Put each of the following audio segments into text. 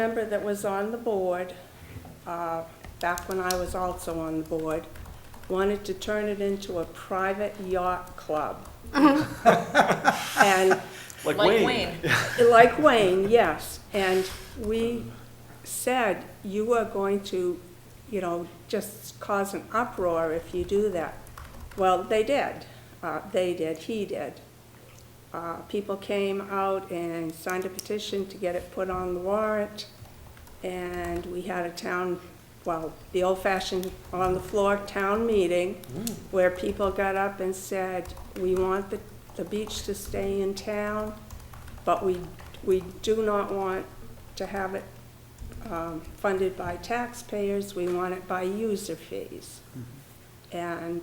member that was on the board, uh, back when I was also on the board, wanted to turn it into a private yacht club. And Like Like Wayne. Wayne. like Wayne, yes, and we said, you are going to, you know, just cause an uproar if you do that. Well, they did, uh, they did, he did. Uh, people came out and signed a petition to get it put on the warrant, and we had a town, well, the old-fashioned, on-the-floor town meeting, where people got up and said, we want the, the beach to stay in town, but we, we do not want to have it um, funded by taxpayers, we want it by user fees. And,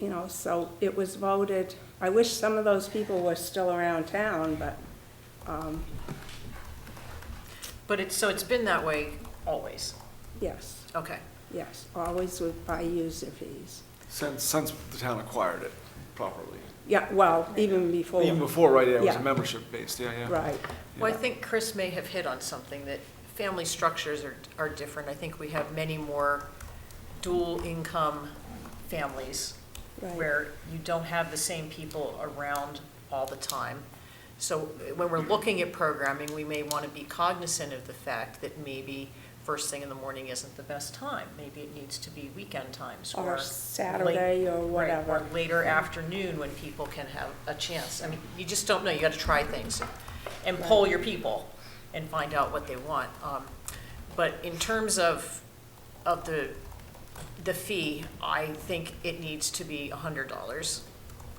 you know, so it was voted, I wish some of those people were still around town, but, But it's, so it's been that way always. yes, Okay. yes, always with by user fees. Since, since the town acquired it properly. Yeah, well, even before, Even before, right, yeah, it was Yeah. a membership based, yeah, yeah. right, Well, I think Chris may have hit on something, that family structures are, are different. I think we have many more dual-income families right, where you don't have the same people around all the time. So when we're looking at programming, we may want to be cognizant of the fact that maybe first thing in the morning isn't the best time. Maybe it needs to be weekend times or. or late- Saturday or Right, whatever. or later afternoon when people can have a chance. I mean, you just don't know, you gotta try things and poll your people and find out what they want. Um, But in terms of, of the, the fee, I think it needs to be hundred dollars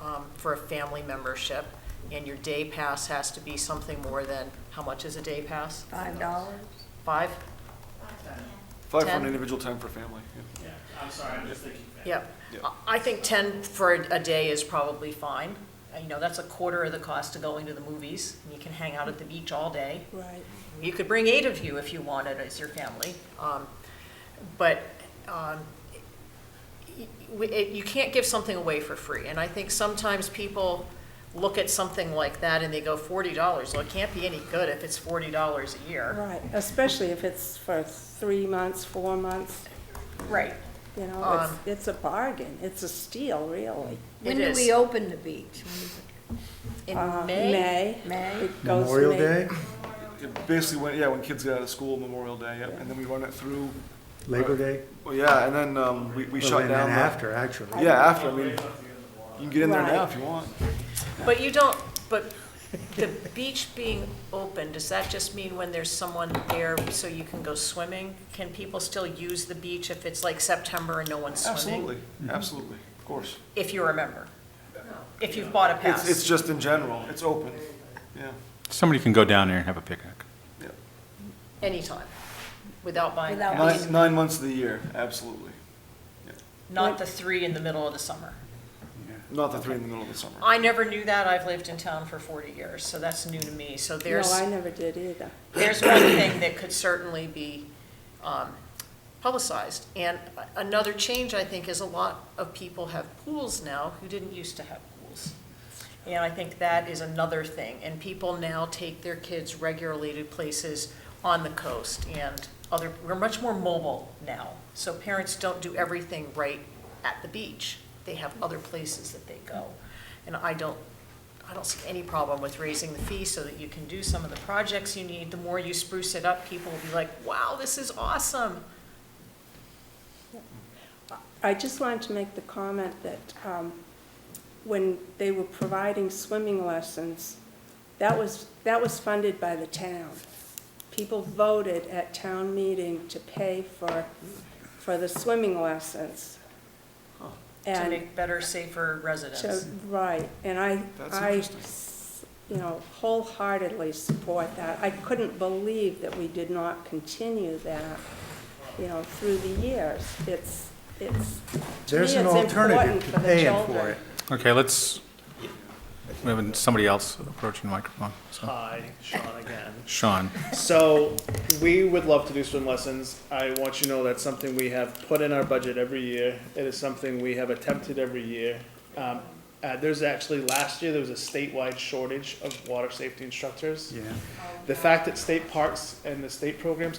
um, for a family membership. And your day pass has to be something more than, how much is a day pass? Five dollars? Five? Five for Ten. an individual, ten for family. yeah. Yeah, I'm sorry, I'm just thinking. back. Yep. Yeah. I- I think 10 for a a day is probably fine. Uh, You know, that's a quarter of the cost of going to the movies. and You can hang out at the beach all day. Right, You could bring eight of you if you wanted as your family. Um, But um, y- y- it- you can't give something away for free. And I think sometimes people look at something like that and they go, $40, well, it can't be any good if it's $40 a year. right, especially if it's for three months, four months. Right. You know, Um, it's, it's a bargain, it's a steal, really. When It do is. we open the beach? In Uh, May, May? It goes Memorial May. Day, It Basically, when, yeah, when kids get out of school, Memorial Day, yep, and then we run it through, Labor Day. well, yeah, and then, um, we, we Well, shut then- then down. the- After, actually. Yeah, after, I mean, you can get in there now Right. if you want. But you don't, but the beach being open, does that just mean when there's someone there so you can go swimming? Can people still use the beach if it's like September and no one's swimming? Absolutely, Mm-hmm. absolutely, of course. If you're a member? If you've bought a It's, it's pass? just in general, it's open, yeah, Somebody can go down there and have a picnic. yeah. Anytime, without buying a Without pass? Nine, nine months of the year, absolutely. Not the three in the middle of the summer. Not the three in the middle of the summer. I never knew that. I've lived in town for 40 years, so that's new to me. So No, there's. I never did either. there's one thing that could certainly be um, publicized. And a- another change, I think, is a lot of people have pools now who didn't used to have pools. And I think that is another thing. And people now take their kids regularly to places on the coast and other, we're much more mobile now. So parents don't do everything right at the beach. They have other places that they go. And I don't, I don't see any problem with raising the fee so that you can do some of the projects you need. The more you spruce it up, people will be like, wow, this is awesome. I just wanted to make the comment that um, when they were providing swimming lessons, that was, that was funded by the town. People voted at town meeting to pay for, for the swimming lessons. To And make better, safer So, residents. right, and I, That's I, interesting. s- you know, wholeheartedly support that. I couldn't believe that we did not continue that, you know, through the years. It's, it's, to me, There's it's an important alternative for to the paying for children. it. Okay, let's, we have somebody else approaching the microphone. So, Hi, Sean again. Sean, So, we would love to do swim lessons. I want you to know that's something we have put in our budget every year. It is something we have attempted every year. Um, Uh, there's actually, last year, there was a statewide shortage of water safety instructors. Yeah. The fact that state parks and the state programs